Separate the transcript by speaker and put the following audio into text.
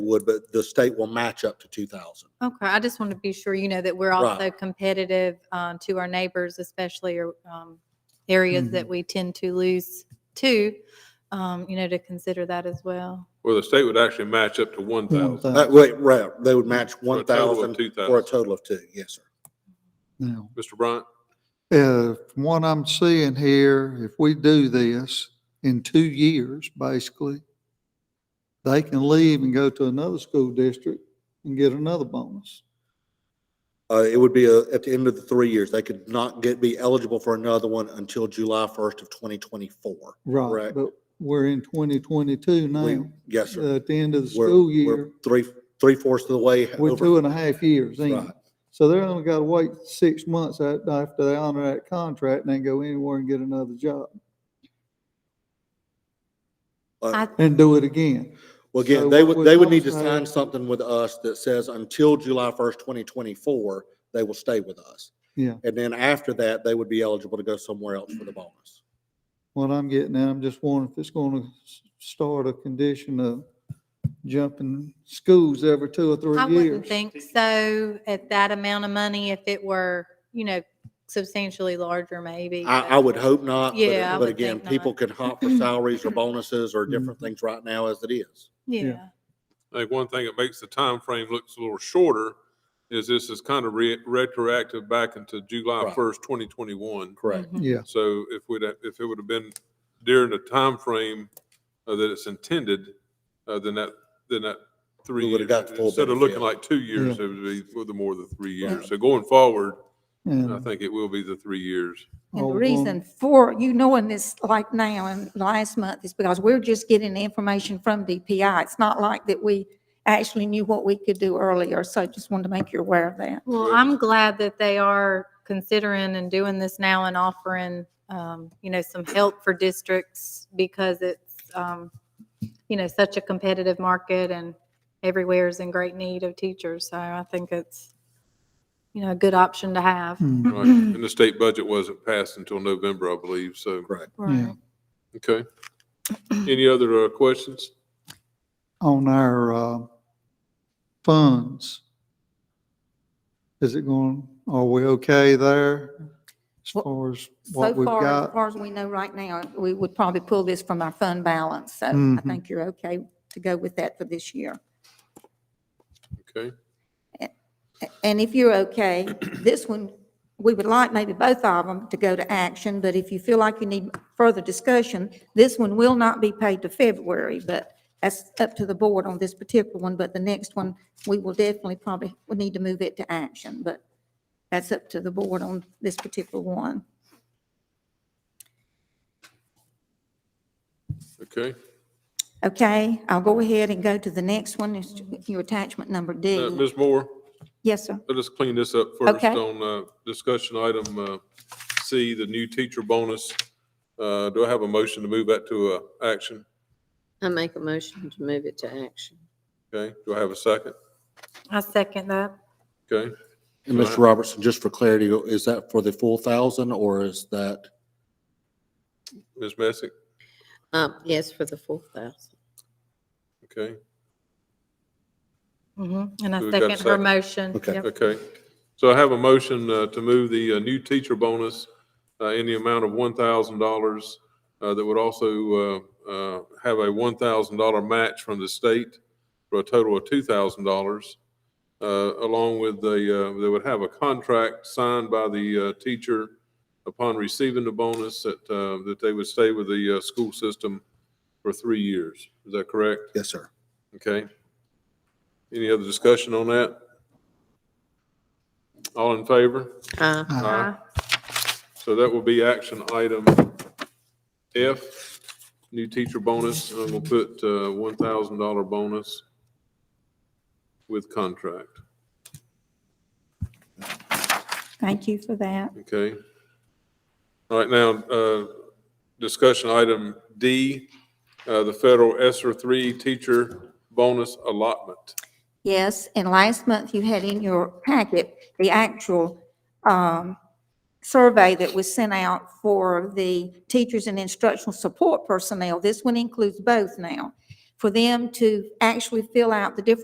Speaker 1: would, but the state will match up to two thousand.
Speaker 2: Okay, I just want to be sure, you know, that we're
Speaker 1: Right.
Speaker 2: also competitive um, to our neighbors, especially or um, areas that
Speaker 1: Mm-hmm.
Speaker 2: we tend to lose to, um, you know, to consider that as well.
Speaker 3: Well, the state would actually match up to one thousand.
Speaker 1: Uh, wait, right, they would match one thousand
Speaker 3: Two
Speaker 1: for a
Speaker 3: thousand.
Speaker 1: total of two, yes, sir.
Speaker 4: Now,
Speaker 3: Mr. Bryant,
Speaker 4: uh, from what I'm seeing here, if we do this in two years, basically, they can leave and go to another school district and get another bonus.
Speaker 1: Uh, it would be uh, at the end of the three years. They could not get, be eligible for another one until July first of twenty twenty-four. Correct.
Speaker 4: But we're in twenty twenty-two now,
Speaker 1: Yes,
Speaker 4: uh,
Speaker 1: sir.
Speaker 4: at the end of the
Speaker 1: We're-
Speaker 4: school
Speaker 1: we're
Speaker 4: year.
Speaker 1: Three, three fourths of the way.
Speaker 4: We're
Speaker 1: over.
Speaker 4: two and a half years in.
Speaker 1: Right.
Speaker 4: So they're only got to wait six months a- after they honor that contract and then go anywhere and get another job
Speaker 1: Uh,
Speaker 2: I-
Speaker 4: and do it again.
Speaker 1: Well, again,
Speaker 4: So
Speaker 1: they
Speaker 4: what
Speaker 1: would, they
Speaker 4: would
Speaker 1: would need to
Speaker 4: y'all
Speaker 1: sign
Speaker 4: say?
Speaker 1: something with us that says until July first, twenty twenty-four, they will stay with us.
Speaker 4: Yeah.
Speaker 1: And then after that, they would be eligible to go somewhere else for the bonus.
Speaker 4: What I'm getting at, I'm just wondering if it's going to start a condition of jumping schools every two or
Speaker 2: I
Speaker 4: three
Speaker 2: wouldn't
Speaker 4: years.
Speaker 2: think so at that amount of money if it were, you know, substantially larger maybe.
Speaker 1: I,
Speaker 2: but-
Speaker 1: I would hope not,
Speaker 2: Yeah, I
Speaker 1: but, but
Speaker 2: would
Speaker 1: again,
Speaker 2: think
Speaker 1: people
Speaker 2: not. Mm-hmm.
Speaker 1: can hop for salaries or bonuses or different
Speaker 4: Mhm.
Speaker 1: things right now as it is.
Speaker 2: Yeah.
Speaker 3: I think one thing that makes the time frame looks a little shorter is this is kind of re- retroactive back into July
Speaker 1: Right.
Speaker 3: first, twenty twenty-one.
Speaker 1: Correct.
Speaker 2: Mhm.
Speaker 4: Yeah,
Speaker 3: So if we'd, have- if it would have been during the time frame uh, that it's intended, uh, then that, then that three
Speaker 1: We would've
Speaker 3: years,
Speaker 1: got the full
Speaker 3: instead of looking
Speaker 1: benefit.
Speaker 3: like two years, it would be with the more than three years. So going forward, I
Speaker 4: and
Speaker 3: think it will be the three years.
Speaker 5: And
Speaker 4: all
Speaker 5: the
Speaker 4: the
Speaker 5: reason
Speaker 4: bonus.
Speaker 5: for you knowing this like now and last month is because we're just getting the information from DPI. It's not like that we actually knew what we could do earlier, so I just wanted to make you aware of that.
Speaker 2: Well,
Speaker 3: Well,
Speaker 2: I'm glad that they are considering and doing this now and offering, um, you know, some help for districts because it's, um, you know, such a competitive market and everywhere is in great need of teachers. So I think it's, you know, a good option to have.
Speaker 4: Mm.
Speaker 3: Right. And the state budget wasn't passed until November, I believe, so.
Speaker 1: Correct.
Speaker 4: Yeah.
Speaker 3: Okay. Any other uh, questions?
Speaker 4: on our uh, funds. Is it going, are we okay there as
Speaker 5: Well,
Speaker 4: far as
Speaker 5: So
Speaker 4: what we've
Speaker 5: far, as
Speaker 4: got?
Speaker 5: far as we know right now, we would probably pull this from our fund balance, so I
Speaker 4: Mhm.
Speaker 5: think you're okay to go with that for this year.
Speaker 3: Okay.
Speaker 5: And if you're okay, this one, we would like maybe both of them to go to action, but if you feel like you need further discussion, this one will not be paid to February, but that's up to the board on this particular one, but the next one, we will definitely probably, we need to move it to action, but that's up to the board on this particular one.
Speaker 3: Okay. Uh,
Speaker 5: Okay, I'll go ahead and go to the next one, it's your attachment number
Speaker 3: Uh,
Speaker 5: D.
Speaker 3: Ms. Moore,
Speaker 5: Yes, sir.
Speaker 3: let us clean this up first
Speaker 5: Okay.
Speaker 3: on, uh, discussion item, uh, C, the new teacher bonus. Uh, do I have a motion to move that to, uh, action?
Speaker 6: I make a motion to move it to action.
Speaker 3: Okay. Do I have a second?
Speaker 2: I second that.
Speaker 3: Okay.
Speaker 1: And Mr. Robertson, just for clarity, is that for the full thousand or is that,
Speaker 3: Ms. Messick?
Speaker 6: Um, yes, for the four thousand.
Speaker 3: Okay.
Speaker 2: Mhm. And I
Speaker 3: Who's got a
Speaker 2: second her
Speaker 3: second?
Speaker 2: motion.
Speaker 1: Okay.
Speaker 2: Yep.
Speaker 3: Okay. So I have a motion, uh, to move the, uh, new teacher bonus, uh, in the amount of one thousand dollars, uh, that would also, uh, uh, have a one thousand dollar match from the state for a total of two thousand dollars, uh, along with the, uh, they would have a contract signed by the, uh, teacher upon receiving the bonus that, uh, that they would stay with the, uh, school system for three years. Is that correct?
Speaker 1: yes, sir?
Speaker 3: Okay. Any other discussion on that? All in favor?
Speaker 6: Uh,
Speaker 3: Aye. So that will be action item F, new teacher bonus, and we'll put uh, $1,000 bonus with contract,
Speaker 5: Thank you for that.
Speaker 3: okay? All right, now, uh, discussion item D, uh, the federal ESER 3 teacher bonus allotment.
Speaker 5: Yes, and last month you had in your packet the actual um, survey that was sent out for the teachers and instructional support personnel. This one includes both now. for them to actually fill out the different